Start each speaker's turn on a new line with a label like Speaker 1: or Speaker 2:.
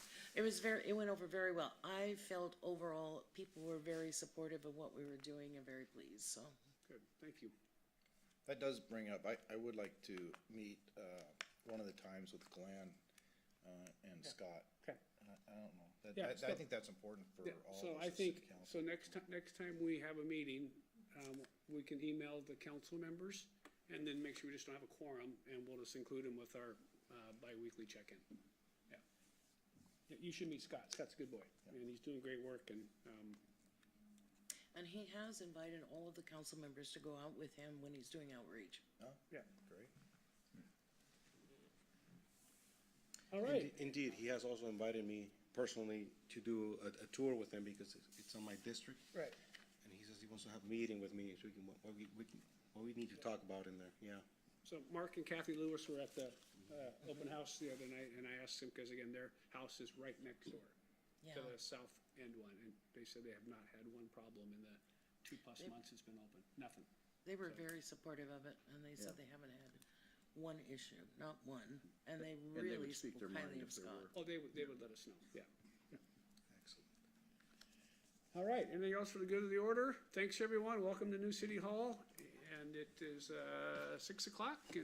Speaker 1: It was very, it went over very well. I felt overall, people were very supportive of what we were doing and very pleased, so.
Speaker 2: Good, thank you.
Speaker 3: That does bring up, I, I would like to meet, uh, one of the times with Glenn, uh, and Scott.
Speaker 2: Okay.
Speaker 3: I, I don't know, that,
Speaker 2: Yeah,
Speaker 3: that- I
Speaker 2: so-
Speaker 3: think that's important for
Speaker 2: Yeah,
Speaker 3: all
Speaker 2: so
Speaker 3: of
Speaker 2: I
Speaker 3: us as city
Speaker 2: think,
Speaker 3: council.
Speaker 2: so next time, next time we have a meeting, um, we can email the council members and then make sure we just don't have a quorum and we'll just include them with our, uh, bi-weekly check-in. Yeah. Yeah, You should meet Scott. Scott's a good boy and he's doing great work and, um,
Speaker 1: And he has invited all of the council members to go out with him when he's doing outreach.
Speaker 3: No?
Speaker 2: Yeah.
Speaker 3: Great.
Speaker 2: all right.
Speaker 4: Inde- Indeed, he has also invited me personally to do a, a tour with him because it's- it's on my district.
Speaker 3: Right.
Speaker 4: And he says he wants to have a meeting with me, so we can, what we, we can, what we need to talk about in there, yeah.
Speaker 2: So Mark and Kathy Lewis were at the, uh, open house the other night and I asked them, cause again, their house is right next door
Speaker 1: Yeah,
Speaker 2: to the south end one and they said they have not had one problem in the two plus months it's been open, nothing.
Speaker 1: they were very supportive of it and they said they haven't had one issue, not one. And they
Speaker 5: would
Speaker 1: really
Speaker 5: speak
Speaker 1: spoke
Speaker 5: their mind
Speaker 1: highly of
Speaker 5: if there
Speaker 1: Scott.
Speaker 2: Oh,
Speaker 5: were.
Speaker 2: they would, they would let us know, yeah.
Speaker 3: Excellent.
Speaker 2: All right, anything else for the good of the order? Thanks, everyone, welcome to New City Hall, and it is, uh, six o'clock, and